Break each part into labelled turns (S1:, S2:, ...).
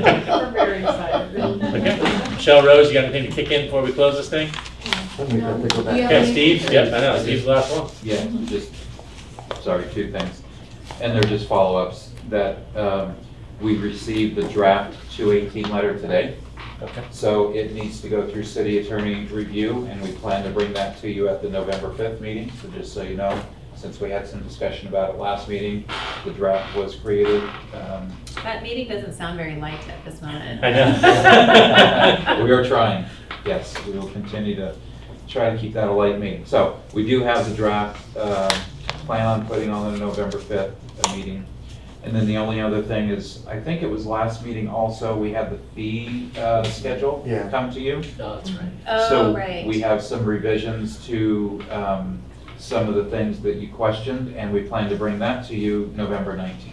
S1: We're very excited.
S2: Okay. Michelle Rose, you got anything to kick in before we close this thing?
S3: Let me go pick up that-
S1: Do you have
S2: Okay,
S1: any-
S2: Steve, yeah, I know, Steve's the last one.
S4: Yeah, just, sorry, two things. And they're just follow-ups that um, we received the draft 218 letter today.
S2: Okay.
S4: So it needs to go through city attorney review, and we plan to bring that to you at the November 5th meeting. So just so you know, since we had some discussion about it last meeting, the draft was created. um,
S5: That meeting doesn't sound very light at this moment.
S2: I know.
S4: We are trying, yes, we will continue to try to keep that a light meeting. So, we do have the draft, um, plan on putting on the November 5th meeting. And then the only other thing is, I think it was last meeting also, we had the fee uh, schedule
S3: Yeah.
S4: come to you.
S2: Oh, that's right.
S5: Oh, right.
S4: So we have some revisions to um, some of the things that you questioned, and we plan to bring that to you November 19th.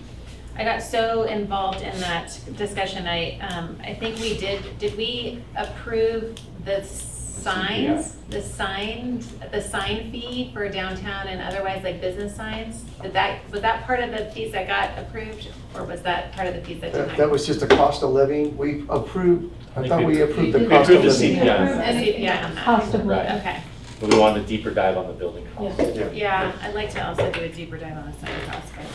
S5: I got so involved in that discussion, I, um, I think we did, did we approve the signs? The signed, the sign fee for downtown and otherwise like business signs? Did that, was that part of the fees that got approved, or was that part of the fees that did
S3: That
S5: not?
S3: that was just a cost of living. We approved, I thought we approved the
S2: We
S3: cost of
S2: approved the
S3: living.
S2: CPI.
S5: Yeah, on that.
S1: Cost of living.
S5: Okay,
S2: But we wanted a deeper dive on the building costs.
S1: Yeah.
S5: yeah, I'd like to also do a deeper dive on the sign cost, but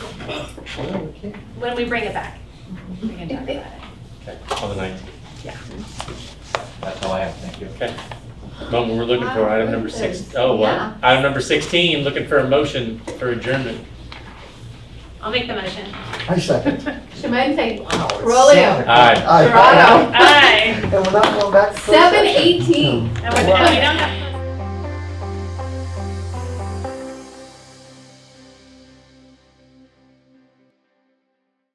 S3: Well, we can't.
S5: when we bring it back, we can talk about it.
S2: Okay, on the nineteenth.
S4: That's all I have, thank you.
S2: Okay. Moment we're looking for, item number six, oh,
S6: Yeah.
S2: what? Item number sixteen, looking for a motion for adjournment.
S5: I'll make the motion.
S3: I second.
S6: She might say,
S3: Wow, it's
S6: Rolio.
S3: seven.
S2: Aye.
S3: Aye.
S6: Toronto.
S5: Aye.
S3: And we're not going back to closed
S6: Seven
S3: session.
S6: eighteen.
S5: And we're- and we don't have-